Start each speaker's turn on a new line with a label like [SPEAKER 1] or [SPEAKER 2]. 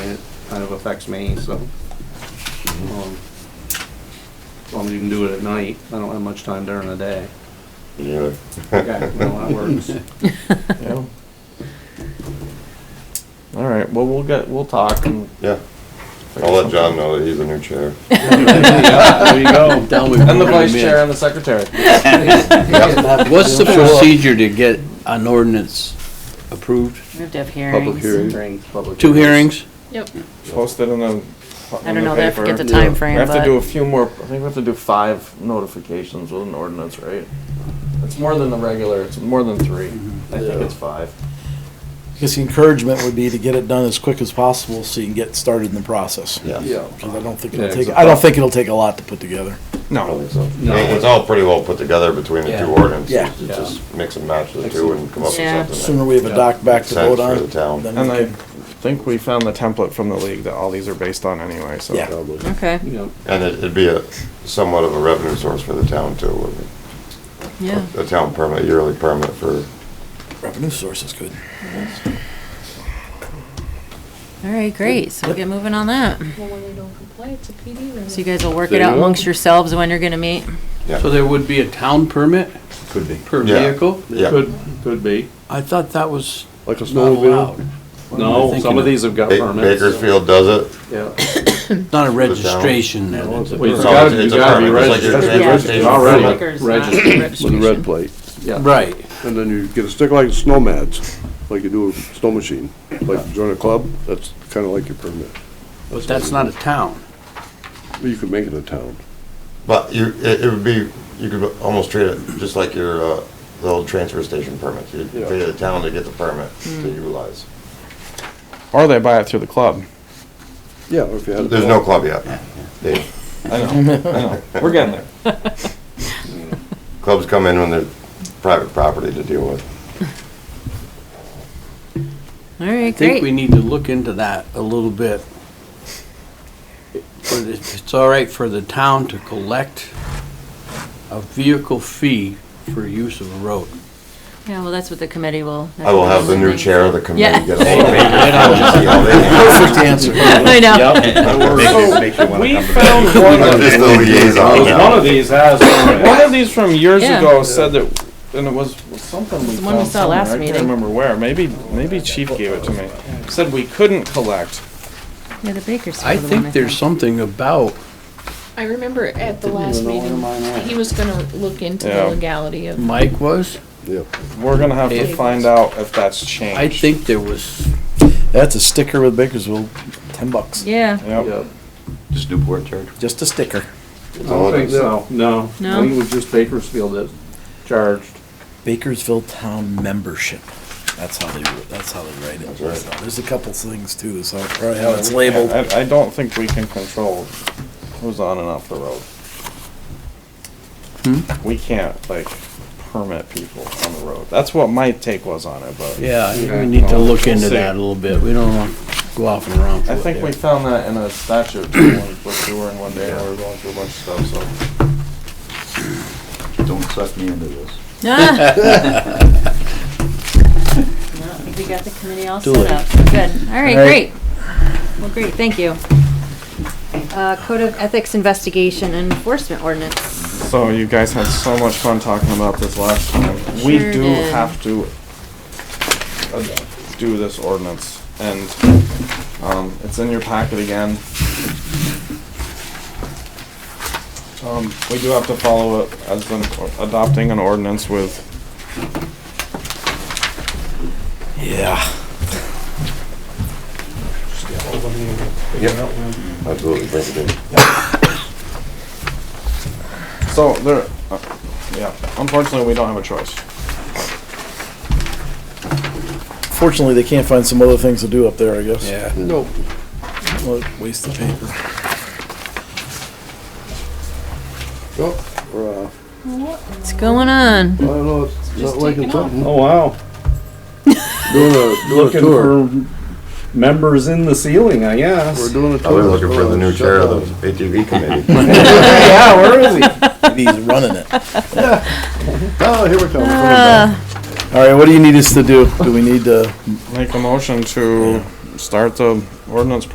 [SPEAKER 1] kind of affects me, so. um, As long as you can do it at night, I don't have much time during the day.
[SPEAKER 2] Really?
[SPEAKER 1] Yeah, no, that works.
[SPEAKER 3] Yeah. All right, well, we'll get, we'll talk and.
[SPEAKER 2] Yeah. I'll let John know that he's a new chair.
[SPEAKER 3] There you go.
[SPEAKER 4] Down we
[SPEAKER 3] And the
[SPEAKER 4] voted him
[SPEAKER 3] vice
[SPEAKER 4] in.
[SPEAKER 3] chair and the secretary.
[SPEAKER 4] What's the procedure to get an ordinance approved?
[SPEAKER 5] We have to have
[SPEAKER 4] Public
[SPEAKER 5] hearings.
[SPEAKER 4] hearing?
[SPEAKER 1] Hearings, public
[SPEAKER 4] Two hearings?
[SPEAKER 5] Yep.
[SPEAKER 3] Posted in the, in
[SPEAKER 5] I
[SPEAKER 3] the
[SPEAKER 5] don't know, I forget the
[SPEAKER 3] paper.
[SPEAKER 4] yeah.
[SPEAKER 5] time
[SPEAKER 3] We
[SPEAKER 5] frame,
[SPEAKER 3] have to
[SPEAKER 5] but
[SPEAKER 3] do a few more, I think we have to do five notifications with an ordinance, right? It's more than the regular, it's more than three. I think it's five.
[SPEAKER 6] I guess the encouragement would be to get it done as quick as possible so you can get started in the process.
[SPEAKER 2] Yeah.
[SPEAKER 6] Because I don't think
[SPEAKER 1] Yeah,
[SPEAKER 6] it'll
[SPEAKER 1] it's
[SPEAKER 6] take,
[SPEAKER 1] a-
[SPEAKER 6] I don't think it'll take a lot to put together.
[SPEAKER 2] I
[SPEAKER 3] No.
[SPEAKER 2] think so. I mean, It's all pretty well put together between the
[SPEAKER 3] Yeah.
[SPEAKER 2] two ordinances.
[SPEAKER 6] Yeah.
[SPEAKER 2] You Just mix and match the two and come up
[SPEAKER 5] Yeah.
[SPEAKER 2] with something.
[SPEAKER 6] Sooner we have a doc back to
[SPEAKER 2] Sense
[SPEAKER 6] vote
[SPEAKER 2] for
[SPEAKER 6] on.
[SPEAKER 2] the town.
[SPEAKER 6] then we
[SPEAKER 3] And I
[SPEAKER 6] can-
[SPEAKER 3] think we found the template from the league that all these are based on anyway, so.
[SPEAKER 6] Yeah.
[SPEAKER 5] okay,
[SPEAKER 1] You know,
[SPEAKER 2] And it- it'd be a somewhat of a revenue source for the town too. wouldn't it?
[SPEAKER 5] yeah.
[SPEAKER 2] A town permit, yearly permit for,
[SPEAKER 6] Revenue source is good.
[SPEAKER 5] All right, great. So we'll get moving on that.
[SPEAKER 7] Well, when they don't comply, it's a PD
[SPEAKER 5] So
[SPEAKER 7] visit.
[SPEAKER 5] you guys will work
[SPEAKER 4] There
[SPEAKER 5] it
[SPEAKER 4] you
[SPEAKER 5] out
[SPEAKER 4] go.
[SPEAKER 5] amongst yourselves when you're gonna meet.
[SPEAKER 2] yeah.
[SPEAKER 4] So there would be a town permit
[SPEAKER 2] Could be.
[SPEAKER 4] per
[SPEAKER 2] Yeah.
[SPEAKER 4] vehicle?
[SPEAKER 2] Yeah.
[SPEAKER 1] could, could be.
[SPEAKER 4] I thought that was
[SPEAKER 3] Like
[SPEAKER 7] Oh,
[SPEAKER 3] a
[SPEAKER 4] not allowed.
[SPEAKER 1] No, some of
[SPEAKER 4] thinking?
[SPEAKER 1] these have got
[SPEAKER 2] Ba-
[SPEAKER 1] permits.
[SPEAKER 2] Bakersfield does it.
[SPEAKER 1] Yeah.
[SPEAKER 4] Not a registration then.
[SPEAKER 1] Well, you
[SPEAKER 2] It's
[SPEAKER 1] gotta,
[SPEAKER 2] all-
[SPEAKER 1] you
[SPEAKER 2] it's a
[SPEAKER 1] gotta be
[SPEAKER 2] permit, it's like
[SPEAKER 1] registered,
[SPEAKER 2] your
[SPEAKER 1] It's registered
[SPEAKER 2] transportation
[SPEAKER 1] already,
[SPEAKER 5] Baker's not
[SPEAKER 1] registered,
[SPEAKER 8] With a red
[SPEAKER 5] registration.
[SPEAKER 8] plate.
[SPEAKER 1] yeah.
[SPEAKER 4] Right.
[SPEAKER 8] And then you get a stick like snow mats, like you do a snow machine. Like you join a club, that's kind of like your permit.
[SPEAKER 4] But that's not a town.
[SPEAKER 8] But you could make it a town.
[SPEAKER 2] But you, it, it would be, you could almost treat it just like your, uh, the old transfer station permits. You
[SPEAKER 8] Yeah.
[SPEAKER 2] pay the town to get the permit to
[SPEAKER 5] Mm.
[SPEAKER 2] utilize.
[SPEAKER 3] Or they buy it through the club.
[SPEAKER 8] Yeah, or if you had. a
[SPEAKER 2] There's no club yet. They-
[SPEAKER 3] We're getting there.
[SPEAKER 2] Clubs come in when they're private property to deal with.
[SPEAKER 5] All right,
[SPEAKER 4] I think we
[SPEAKER 5] great.
[SPEAKER 4] need to look into that a little bit. But if it's all right for the town to collect a vehicle fee for use of a road.
[SPEAKER 5] Yeah, well, that's what the committee will.
[SPEAKER 2] I will have the new chair of the committee
[SPEAKER 5] Yeah.
[SPEAKER 2] get a hold of it.
[SPEAKER 6] Perfect answer.
[SPEAKER 5] I know.
[SPEAKER 3] We found one of
[SPEAKER 2] Just the liaison
[SPEAKER 1] Because Oh, one
[SPEAKER 2] now.
[SPEAKER 1] of these has
[SPEAKER 3] One
[SPEAKER 1] permits.
[SPEAKER 3] of these from years
[SPEAKER 5] Yeah.
[SPEAKER 3] ago said that, and it was was something we
[SPEAKER 5] the one we
[SPEAKER 3] found
[SPEAKER 5] saw
[SPEAKER 3] somewhere,
[SPEAKER 5] last
[SPEAKER 3] I
[SPEAKER 5] meeting.
[SPEAKER 3] can't remember where, maybe, maybe Chief gave it to me. Said we couldn't collect.
[SPEAKER 5] Yeah, the Bakersfield.
[SPEAKER 4] I
[SPEAKER 5] one,
[SPEAKER 4] think there's something about
[SPEAKER 7] I remember at the last meeting, he was gonna look into
[SPEAKER 3] Yeah.
[SPEAKER 7] the legality of.
[SPEAKER 4] Mike was.
[SPEAKER 8] Yeah.
[SPEAKER 3] We're gonna have to
[SPEAKER 4] Hey.
[SPEAKER 3] find out if that's changed.
[SPEAKER 4] I think there was
[SPEAKER 6] That's a sticker with Bakersfield, ten bucks.
[SPEAKER 5] Yeah,
[SPEAKER 3] Yep,
[SPEAKER 2] Just Newport Church.
[SPEAKER 6] Just a sticker.
[SPEAKER 1] I don't think so, no.
[SPEAKER 5] No?
[SPEAKER 1] I think it was just Bakersfield that charged.
[SPEAKER 6] Bakersfield Town Membership. That's how they, that's how they write it.
[SPEAKER 2] That's right.
[SPEAKER 6] So There's a couple things too, so probably how it's labeled.
[SPEAKER 3] I, I don't think we can control who's on and off the road.
[SPEAKER 4] Hmm?
[SPEAKER 3] We can't, like, permit people on the road. That's what my take was on it, but.
[SPEAKER 4] Yeah, I think
[SPEAKER 1] Okay.
[SPEAKER 4] we need to look into
[SPEAKER 3] We'll see.
[SPEAKER 4] that a little bit. We don't want to go off and around.
[SPEAKER 3] I think we found that in a statute too, when we were touring one day and we were going through a bunch of stuff, so.
[SPEAKER 9] Don't suck me into this.
[SPEAKER 5] Ah. Well, I think We got the committee all
[SPEAKER 4] Do
[SPEAKER 5] set
[SPEAKER 4] it.
[SPEAKER 5] up. Good. All right, great. Well, great, thank you. Uh, Code of Ethics Investigation and Enforcement Ordinance.
[SPEAKER 3] So you guys had so much fun talking about this last time. We
[SPEAKER 5] Sure
[SPEAKER 3] do
[SPEAKER 5] did.
[SPEAKER 3] have to uh, do this ordinance and, um, it's in your packet again. Um, we do have to follow it as an, adopting an ordinance with
[SPEAKER 6] Yeah.
[SPEAKER 2] Absolutely, bring it in.
[SPEAKER 3] So there, uh, yeah. Unfortunately, we don't have a choice.
[SPEAKER 6] Fortunately, they can't find some other things to do up there, I guess.
[SPEAKER 4] Yeah.
[SPEAKER 8] No.
[SPEAKER 6] Well, Waste of paper.
[SPEAKER 8] Oh, or, uh,
[SPEAKER 5] What's going on?
[SPEAKER 8] I don't know, it's not
[SPEAKER 7] Just taking
[SPEAKER 8] liking
[SPEAKER 7] off.
[SPEAKER 8] something.
[SPEAKER 1] Oh, wow.
[SPEAKER 8] Doing a, doing a
[SPEAKER 1] Looking
[SPEAKER 8] tour.
[SPEAKER 1] for members in the ceiling, I
[SPEAKER 8] We're
[SPEAKER 1] guess.
[SPEAKER 8] doing a tour.
[SPEAKER 2] We're looking for the new
[SPEAKER 8] Shut
[SPEAKER 2] chair
[SPEAKER 8] down.
[SPEAKER 2] of the ATV committee.
[SPEAKER 1] Yeah, where is he?
[SPEAKER 6] Maybe he's running it.
[SPEAKER 8] Oh, here we come.
[SPEAKER 5] Uh,
[SPEAKER 6] All right, what do you need us to do? Do we need to?
[SPEAKER 3] Make a motion to start the ordinance